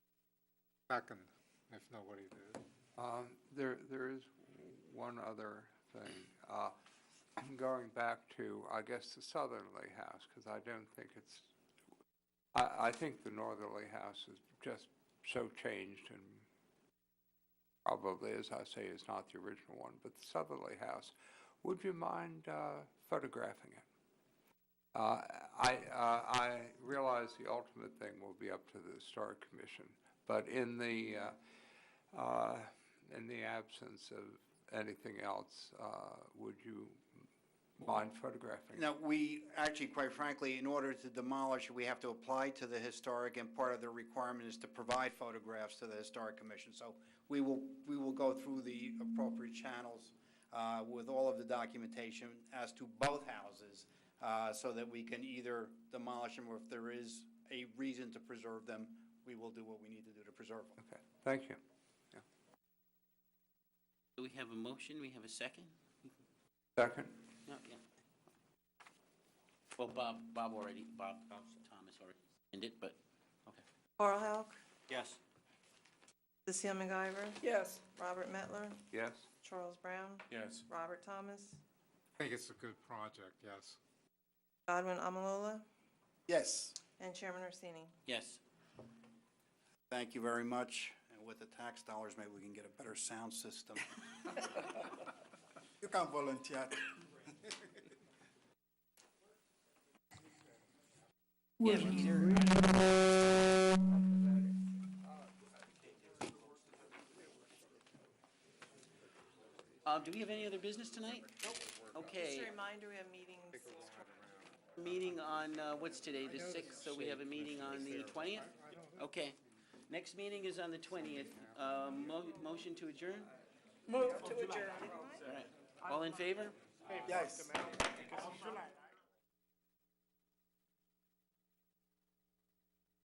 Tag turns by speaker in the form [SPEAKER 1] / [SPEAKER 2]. [SPEAKER 1] Second, if nobody did.
[SPEAKER 2] Um, There, there is one other thing. Uh, Going back to, I guess, the southerly house, because I don't think it's, I, I think the northerly house is just so changed and probably, as I say, is not the original one, but the southerly house, would you mind uh, photographing it? Uh, I, uh, I realize the ultimate thing will be up to the historic commission, but in the, uh, uh, In the absence of anything else, uh, would you mind photographing?
[SPEAKER 3] No, we, actually, quite frankly, in order to demolish, we have to apply to the historic, and part of the requirement is to provide photographs to the Historic Commission. So we will, we will go through the appropriate channels uh, with all of the documentation as to both houses, uh, so that we can either demolish them, or if there is a reason to preserve them, we will do what we need to do to preserve them.
[SPEAKER 2] Okay, thank you.
[SPEAKER 4] Do we have a motion? We have a second?
[SPEAKER 2] Second?
[SPEAKER 4] No, yeah. Well, Bob, Bob already, Bob, Bob Thomas already ended, but, okay.
[SPEAKER 5] Carl Halk,
[SPEAKER 4] Yes.
[SPEAKER 5] Cecile McIver. Yes. Robert Mettler,
[SPEAKER 2] Yes?
[SPEAKER 5] Charles Brown,
[SPEAKER 6] Yes.
[SPEAKER 5] Robert Thomas,
[SPEAKER 1] I think it's a good project, yes.
[SPEAKER 5] Godwin Amalola,
[SPEAKER 3] Yes.
[SPEAKER 5] and Chairman Orsini.
[SPEAKER 4] Yes.
[SPEAKER 3] Thank you very much, and with the tax dollars, maybe we can get a better sound system. You can volunteer.
[SPEAKER 4] Uh, do we have any other business tonight? Okay,
[SPEAKER 5] Just a reminder, we have meetings.
[SPEAKER 4] meeting on, uh, what's today, the sixth, so we have a meeting on the twentieth? Okay. Next meeting is on the twentieth. Uh, mo- motion to adjourn?
[SPEAKER 5] Move to adjourn.
[SPEAKER 4] All right. All in favor?
[SPEAKER 3] Yes.